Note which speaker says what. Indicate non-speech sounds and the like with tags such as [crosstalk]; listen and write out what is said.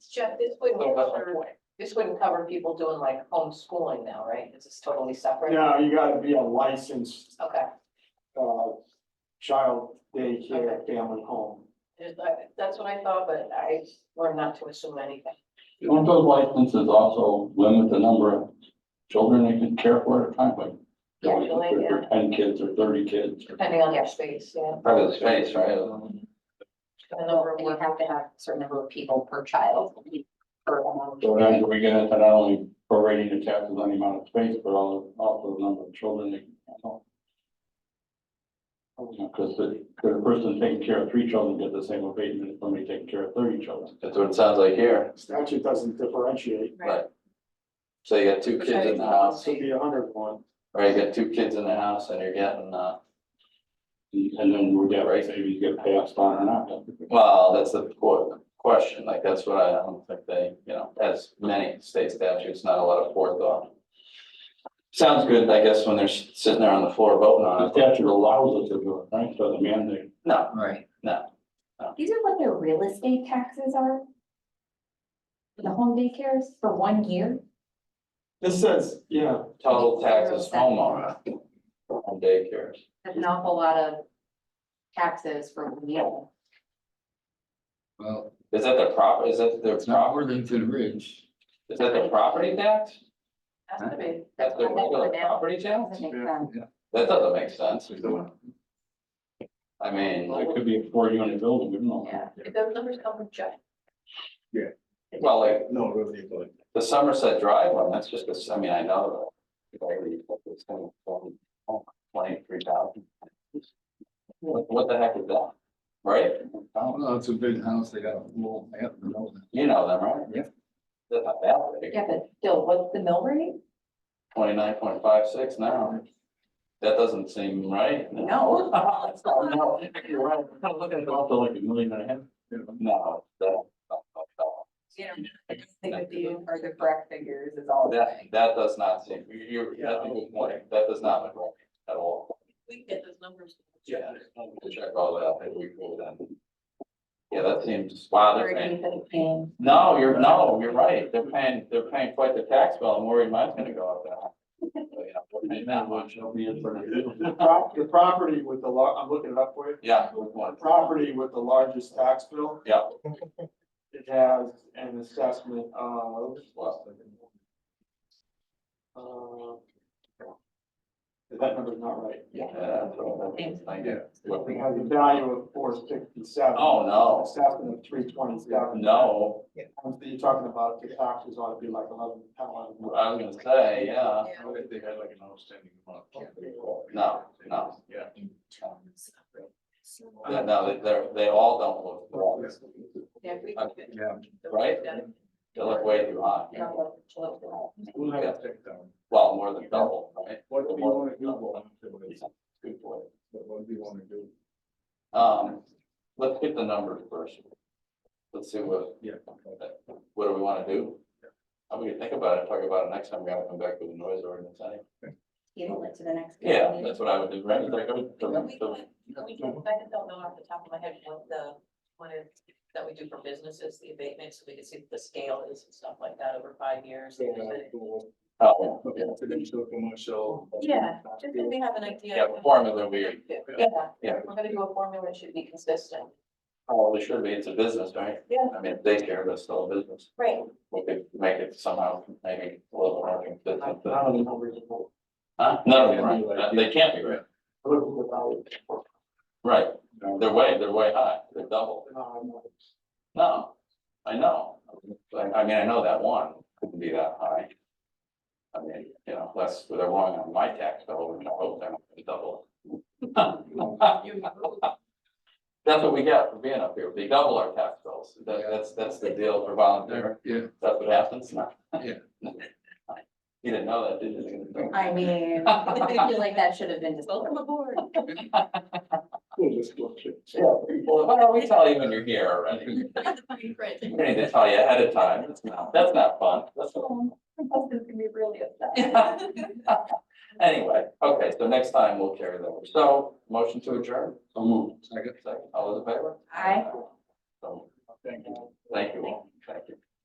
Speaker 1: Jeff, this wouldn't,
Speaker 2: So that's my
Speaker 1: cover- this wouldn't cover people doing like homeschooling now, right? This is totally separate?
Speaker 3: No, you gotta be a licensed,
Speaker 1: Okay,
Speaker 3: uh, child daycare family home.
Speaker 1: Just, I- that's what I thought, but I learned not to assume anything.
Speaker 4: Don't those licenses also limit the number of children they can care for at a time, like?
Speaker 1: Yeah, you like
Speaker 4: if they're Ten kids or thirty kids. or-
Speaker 1: Depending on your space, yeah.
Speaker 2: Probably the space, right?
Speaker 1: The number
Speaker 5: So
Speaker 1: of
Speaker 5: you
Speaker 1: work-
Speaker 5: have to have a certain number of people per child. per amount.
Speaker 4: So then we get into not only prorating the taxes on the amount of space, but all- also the number of children they can handle. Because the, could a person taking care of three children get the same abatement as somebody taking care of thirty children?
Speaker 2: That's what it sounds like here.
Speaker 3: Statute doesn't differentiate,
Speaker 1: Right.
Speaker 2: So you got two kids in the house,
Speaker 3: so it'd be a hundred and one.
Speaker 2: or you got two kids in the house and you're getting, uh,
Speaker 4: And then we get, right, maybe you get passed on or not.
Speaker 2: well, that's the qu- question, like, that's what I don't think they, you know, as many state statutes, not a lot of forethought. Sounds good, I guess, when they're s- sitting there on the floor voting on
Speaker 4: The
Speaker 2: it.
Speaker 4: statute allows us to do it, right, doesn't mandate.
Speaker 2: No,
Speaker 6: Right.
Speaker 2: no,
Speaker 5: These are what their real estate taxes are? The home daycares for one year?
Speaker 3: This says, yeah,
Speaker 2: total taxes homeowner. On daycares.
Speaker 5: That's an awful lot of taxes for one year.
Speaker 6: Well,
Speaker 2: Is that the prop, is that their
Speaker 6: it's not
Speaker 2: property,
Speaker 6: Worthington Ridge.
Speaker 2: is that the property tax?
Speaker 1: Has to be.
Speaker 2: That's the
Speaker 5: That's what
Speaker 2: regular
Speaker 5: they're now.
Speaker 2: property tax?
Speaker 5: Doesn't make sense.
Speaker 2: That doesn't make sense.
Speaker 6: Well,
Speaker 2: I mean,
Speaker 4: It could be a four unit building, we don't know.
Speaker 1: Yeah, if those numbers come from Jeff,
Speaker 2: well, like
Speaker 6: No, really, but.
Speaker 2: the Somerset Drive one, that's just, a- I mean, I know. Twenty-three thousand. What what the heck is that? Right?
Speaker 6: No, it's a big house, they got a pool, they have the building.
Speaker 2: You know them, right?
Speaker 6: Yeah.
Speaker 2: That's not that big.
Speaker 5: Yeah, but still, what's the mill rate?
Speaker 2: Twenty-nine point five six now. That doesn't seem right.
Speaker 5: No. [laughs]
Speaker 2: No, you're right.
Speaker 4: I'm looking at also like a million and a half.
Speaker 2: No, that.
Speaker 5: You know, I just think that these are the correct figures is all. I'm
Speaker 2: That,
Speaker 5: saying.
Speaker 2: that does not seem, you're, you're, that's a good point. That does not look right at all.
Speaker 1: we get those numbers.
Speaker 2: Yeah, we'll check all that out, and we will then. Yeah, that seems, wow, they're
Speaker 5: Or do
Speaker 2: paying,
Speaker 5: you think paying-
Speaker 2: no, you're, no, you're right, they're paying, they're paying quite the tax bill, and worried mine's gonna go up now. So, you know, we're paying that much.
Speaker 3: the prop, the property with the lar, I'm looking it up for you.
Speaker 2: Yeah, with one,
Speaker 3: Property with the largest tax bill,
Speaker 2: yeah,
Speaker 3: it has an assessment of,
Speaker 2: well,
Speaker 3: uh. That number's not right.
Speaker 2: yeah, so that's, I guess. What
Speaker 3: We
Speaker 2: we-
Speaker 3: have the value of four sixty-seven.
Speaker 2: Oh, no,
Speaker 3: Assessment of three twenty-seven.
Speaker 2: no,
Speaker 3: You're talking about the taxes ought to be like eleven, ten, eleven.
Speaker 2: I was gonna say, yeah,
Speaker 1: Yeah.
Speaker 6: They had like an outstanding amount.
Speaker 2: No, no.
Speaker 6: Yeah.
Speaker 2: Yeah, no, they- they're, they all don't look wrong,
Speaker 1: Yeah, if we
Speaker 2: Uh,
Speaker 1: can get
Speaker 6: Yeah.
Speaker 1: those
Speaker 2: Right?
Speaker 1: done.
Speaker 2: they look way too high,
Speaker 5: you know, what- what- what-
Speaker 6: We'll have to take down.
Speaker 2: well, more than double, right?
Speaker 6: What do you wanna do? Well,
Speaker 2: Good point.
Speaker 6: What do you wanna do?
Speaker 2: Um, let's get the numbers first. Let's see what,
Speaker 6: Yeah.
Speaker 2: what do we wanna do? I'm gonna think about it, talk about it next time, we gotta come back with a noise ordinance, I think.
Speaker 5: Table it to the next.
Speaker 2: Yeah,
Speaker 5: meeting.
Speaker 2: that's what I would do, right? It's like, oh,
Speaker 1: But We
Speaker 2: the- the-
Speaker 1: can, we
Speaker 4: Mm-hmm.
Speaker 1: can, I don't know off the top of my head what the, what is, that we do for businesses, the abatement, so we can see what the scale is and stuff like that over five years.
Speaker 2: Oh, yeah.
Speaker 6: Potential commercial.
Speaker 1: Yeah, Just so we have an idea.
Speaker 2: Yeah, the formula we
Speaker 1: Yeah,
Speaker 2: Yeah.
Speaker 1: we're gonna do a formula, it should be consistent.
Speaker 2: probably should oh, be, it's a business, right?
Speaker 1: Yeah.
Speaker 2: I mean, daycare, but still a business.
Speaker 1: Right.
Speaker 2: We could make it somehow, maybe a little more
Speaker 3: I
Speaker 2: consistent. but-
Speaker 3: don't even know where to go.
Speaker 2: Huh? No, they're right. Uh, they can't be right.
Speaker 3: I looked at the value.
Speaker 2: Right, they're way, they're way high, they're double.
Speaker 3: No, I'm not.
Speaker 2: No, I know. Like, I mean, I know that one couldn't be that high. I mean, you know, unless they're wrong on my tax bill, we can hope they're not gonna double. [laughs] That's what we get for being up here. They double our tax bills. That, that's, that's the deal for volunteer.
Speaker 6: Yeah,
Speaker 2: That's what happens. No. [laughs]
Speaker 6: Yeah.
Speaker 2: You didn't know that, did you?
Speaker 5: I
Speaker 2: [laughs]
Speaker 5: mean, I feel like that should have been. Welcome aboard.
Speaker 3: We'll just look at it.
Speaker 2: Yeah. Well, why don't we tell you when you're here already? We need to tell you ahead of time. That's not, that's not fun. That's not
Speaker 5: [laughs] My husband's gonna be really upset.
Speaker 2: [laughs] Anyway, okay, so next time we'll carry that. over. So, motion to adjourn,
Speaker 4: So moved.
Speaker 6: second.
Speaker 2: second, all those in favor?
Speaker 5: Aye.
Speaker 2: So,
Speaker 6: Thank you.
Speaker 2: thank you all, thank you.